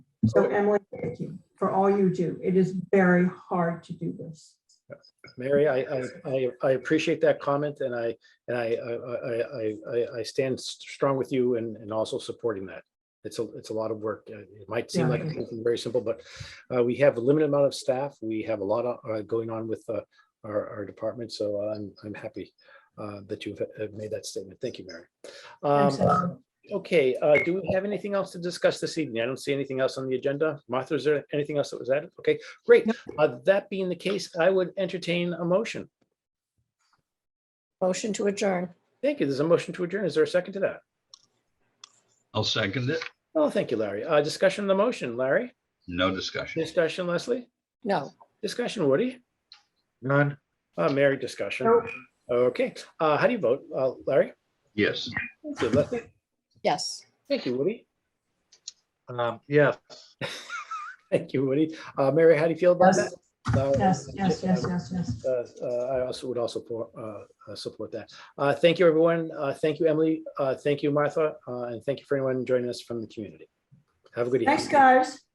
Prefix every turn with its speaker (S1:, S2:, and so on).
S1: So Emily, thank you for all you do. It is very hard to do this.
S2: Mary, I, I, I, I appreciate that comment and I, and I, I, I, I, I stand strong with you and, and also supporting that. It's a, it's a lot of work. Uh, It might seem like
S1: Yeah.
S2: something very simple, but uh, we have a limited amount of staff. We have a lot of, uh, going on with uh, our, our department, so I'm, I'm happy uh, that you've uh, made that statement. Thank you, Mary. Um,
S1: Absolutely.
S2: Okay, uh, do we have anything else to discuss this evening? I don't see anything else on the agenda. Martha, is there anything else that was added? Okay, great. Uh, That being the case, I would entertain a motion.
S3: Motion to adjourn.
S2: Thank you. There's a motion to adjourn. Is there a second to that?
S4: I'll second it.
S2: Oh, thank you, Larry. Uh, Discussion on the motion, Larry?
S4: No discussion.
S2: Discussion, Leslie?
S3: No,
S2: Discussion, Woody?
S5: None.
S2: Uh, Mary, discussion.
S1: Nope.
S2: Okay, uh, how do you vote, Uh, Larry?
S4: Yes.
S2: Thank you, Leslie.
S3: yes.
S2: Thank you, Woody.
S5: Um, yes.
S2: Thank you, Woody. Uh, Mary, how do you feel about
S1: Yes.
S2: that? Uh,
S1: Yes, yes, yes, yes, yes.
S2: uh, uh, I also would also for- uh, uh, support that. Uh, Thank you, everyone. Uh, Thank you, Emily. Uh, Thank you, Martha. Uh, And thank you for anyone joining us from the community. Have a good evening.
S1: Thanks, guys.